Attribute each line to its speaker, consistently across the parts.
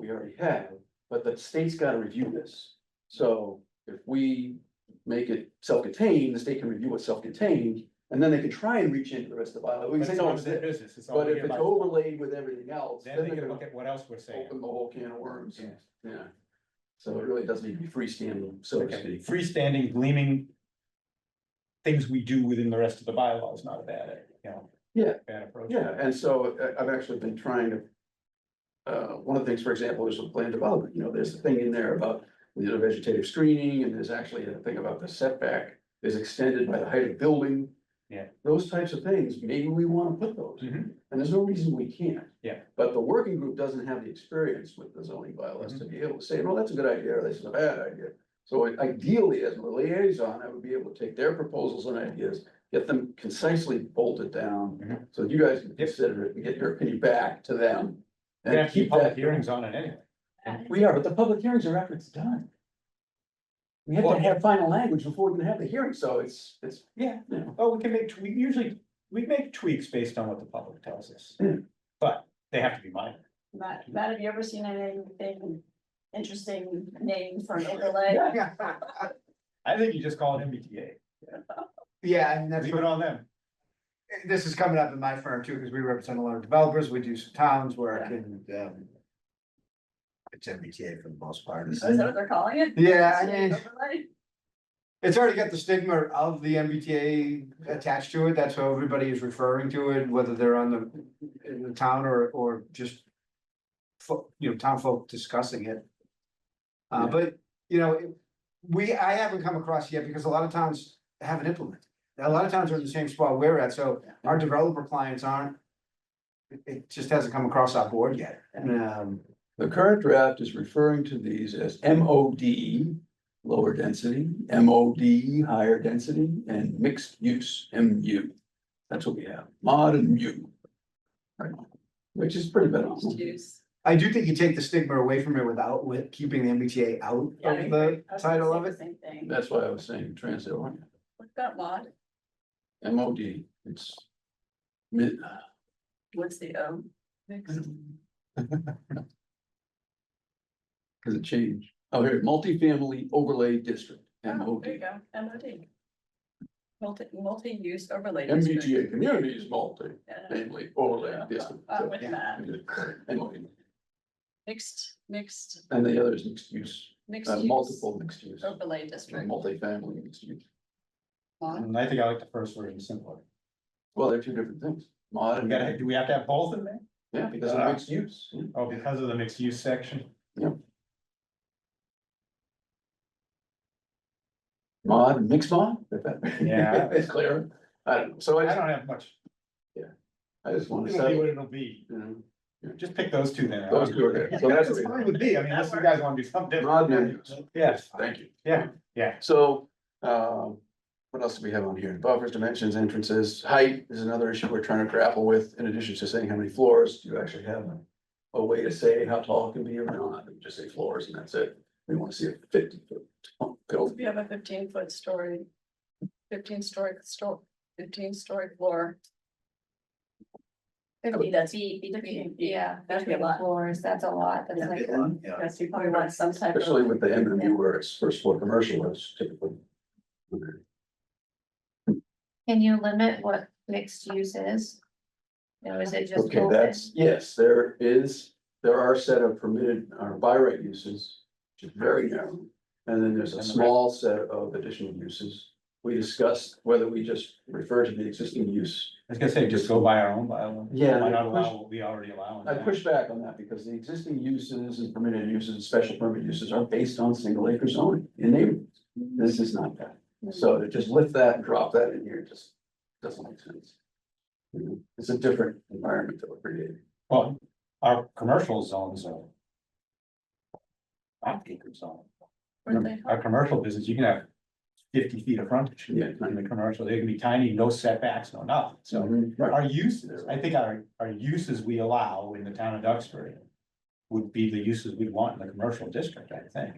Speaker 1: we already have, but the state's gotta review this. So if we make it self-contained, the state can review it self-contained, and then they can try and reach into the rest of the bylaw. We can say,
Speaker 2: That's
Speaker 1: no,
Speaker 2: always
Speaker 1: it's
Speaker 2: their
Speaker 1: this.
Speaker 2: business, it's all
Speaker 1: But if
Speaker 2: here
Speaker 1: it's
Speaker 2: by,
Speaker 1: overlaid with everything else,
Speaker 2: then they can
Speaker 1: gonna
Speaker 2: look at what else we're saying.
Speaker 1: open the whole can of worms,
Speaker 2: Yeah.
Speaker 1: yeah. So it really does need to be freestanding, so to
Speaker 2: Okay,
Speaker 1: speak.
Speaker 2: freestanding gleaming. Things we do within the rest of the bylaw is not a bad, you know.
Speaker 1: Yeah.
Speaker 2: Bad approach.
Speaker 1: Yeah, and so I, I've actually been trying to. Uh, one of the things, for example, is with land development, you know, there's a thing in there about you know, vegetative screening, and there's actually a thing about the setback is extended by the height of building.
Speaker 2: Yeah.
Speaker 1: Those types of things, maybe we wanna put those,
Speaker 2: Mhm.
Speaker 1: and there's no reason we can't.
Speaker 2: Yeah.
Speaker 1: But the working group doesn't have the experience with the zoning bylaws to be able to say, well, that's a good idea, or this is a bad idea. So ideally, as a liaison, I would be able to take their proposals and ideas, get them concisely bolted down,
Speaker 2: Mhm.
Speaker 1: so that you guys can consider it and get your opinion back to them.
Speaker 2: We're gonna
Speaker 1: And
Speaker 2: keep
Speaker 1: keep
Speaker 2: public
Speaker 1: that,
Speaker 2: hearings on it anyway.
Speaker 1: we are, but the public hearings are after it's done. We have
Speaker 2: Well-
Speaker 1: to have final language before we can have the hearing, so it's, it's,
Speaker 2: Yeah,
Speaker 1: you know,
Speaker 2: oh, we can make, we usually, we make tweaks based on what the public tells us.
Speaker 1: Yeah.
Speaker 2: But they have to be minor.
Speaker 3: Matt, Matt, have you ever seen anything interesting name for an overlay?
Speaker 2: I think you just call it MBTA,
Speaker 4: Yeah, and that's
Speaker 2: leave it
Speaker 4: what, eh,
Speaker 2: on them.
Speaker 4: this is coming up in my firm too, because we represent a lot of developers, we do some towns work
Speaker 3: Yeah.
Speaker 4: and, um. It's MBTA for the most part.
Speaker 3: Is that what they're calling it?
Speaker 4: Yeah, I
Speaker 3: Overlay?
Speaker 4: mean, it's already got the stigma of the MBTA attached to it, that's how everybody is referring to it, whether they're on the, in the town or, or just. fo- you know, town folk discussing it. Uh,
Speaker 1: Yeah.
Speaker 4: but, you know, it- we, I haven't come across yet, because a lot of towns haven't implemented. A lot of towns are in the same spot we're at, so our developer clients aren't. It, it just hasn't come across our board yet, and, um,
Speaker 1: The current draft is referring to these as MOD, E, lower density, MOD, E, higher density, and mixed use MU. That's what we have, mod and mu. Right, which is pretty beneficial.
Speaker 3: Juice.
Speaker 4: I do think you take the stigma away from it without, with keeping the MBTA out
Speaker 3: Yeah, I
Speaker 4: of
Speaker 3: agree.
Speaker 4: the
Speaker 3: I was gonna
Speaker 4: title
Speaker 3: say
Speaker 4: of
Speaker 3: the
Speaker 4: it.
Speaker 3: Same thing.
Speaker 1: That's why I was saying transit oriented.
Speaker 3: We've got mod,
Speaker 1: MOD, E, it's. mid-
Speaker 3: what's the O? Mixed.
Speaker 1: Cause it changed. Oh, here, multifamily overlay district,
Speaker 3: Oh, There you
Speaker 1: MOD.
Speaker 3: go, MOD. Multi, multi-use overlay. district.
Speaker 1: MBTA community is multi,
Speaker 3: Yeah.
Speaker 1: namely overlay district.
Speaker 3: Uh, with that,
Speaker 1: MOD.
Speaker 3: mixed, mixed,
Speaker 1: And the other is mixed use,
Speaker 3: mixed
Speaker 1: uh,
Speaker 3: use.
Speaker 1: multiple mixed use,
Speaker 3: Overlay district.
Speaker 1: multifamily mixed use.
Speaker 3: Mod.
Speaker 2: And I think I like the first version simpler.
Speaker 1: Well, they're two different things. Mod
Speaker 2: We gotta,
Speaker 1: and,
Speaker 2: do we have to have both in there?
Speaker 1: yeah, because of mixed use. yeah.
Speaker 2: Oh, because of the mixed use section?
Speaker 1: Mod, and mixed mod? if that-
Speaker 2: Yeah.
Speaker 1: It's clear. I don't know. So I,
Speaker 2: I
Speaker 1: just-
Speaker 2: don't have much,
Speaker 1: I just wanna
Speaker 2: it'll be
Speaker 1: say,
Speaker 2: what it'll be,
Speaker 1: you know.
Speaker 2: just pick those two then.
Speaker 1: Those two, okay. So that's what
Speaker 2: That's
Speaker 1: we-
Speaker 2: fine with me, I mean, unless you guys wanna do something
Speaker 1: Mod menus.
Speaker 2: different. Yes,
Speaker 1: Thank you.
Speaker 2: Yeah, yeah.
Speaker 1: So, um, what else do we have on here? Buffers, dimensions, entrances, height is another issue we're trying to grapple with, in addition to saying how many floors do you actually have? A way to say how tall it can be or not, We just say floors and that's it. We wanna see a fifty foot tall building.
Speaker 3: If you have a fifteen foot story, fifteen story, store, fifteen story floor.
Speaker 5: Fifty
Speaker 3: that's-
Speaker 5: feet between,
Speaker 3: feet.
Speaker 5: yeah,
Speaker 3: That'd be a
Speaker 5: between
Speaker 3: lot.
Speaker 5: floors, that's a lot, that's like.
Speaker 3: Yes, you probably want some type
Speaker 1: Especially
Speaker 3: of,
Speaker 1: with the M and U where it's first floor commercial is typically.
Speaker 5: Can you limit what mixed use is? Or is it just
Speaker 1: Okay,
Speaker 5: open?
Speaker 1: that's, yes, there is, there are a set of permitted, uh, by right uses, which is very narrow. And then there's a
Speaker 2: And the
Speaker 1: small set of additional uses. We discussed whether we just refer to the existing use.
Speaker 2: I was gonna say, just go by our own bylaw.
Speaker 1: Yeah.
Speaker 2: Why not allow what we already allow? in
Speaker 1: I
Speaker 2: that?
Speaker 1: push back on that because the existing uses and permitted uses and special permit uses are based on single acre zoning in neighborhoods. This is not that.
Speaker 5: Mm-hmm.
Speaker 1: So to just lift that and drop that in here just doesn't make sense. You know, It's a different environment that we're creating.
Speaker 2: Well, our commercial zones are. Five acre zone,
Speaker 3: where they,
Speaker 2: our commercial business, you can have fifty feet of frontage.
Speaker 1: Yeah.
Speaker 2: In the commercial, they can be tiny, no setbacks, no nothing, so
Speaker 1: Right.
Speaker 2: our uses, I think our, our uses we allow in the town of Duxbury. Would be the uses we'd want in the commercial district, I think,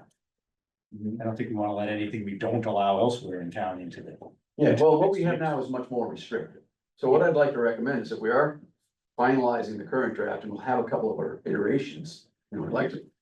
Speaker 2: I don't think we wanna let anything we don't allow elsewhere in town into the.
Speaker 1: Yeah,
Speaker 2: Which
Speaker 1: well, what we
Speaker 2: makes
Speaker 1: have
Speaker 2: sense.
Speaker 1: now is much more restrictive. So what I'd like to recommend is that we are finalizing the current draft and we'll have a couple of our iterations. And we'd like to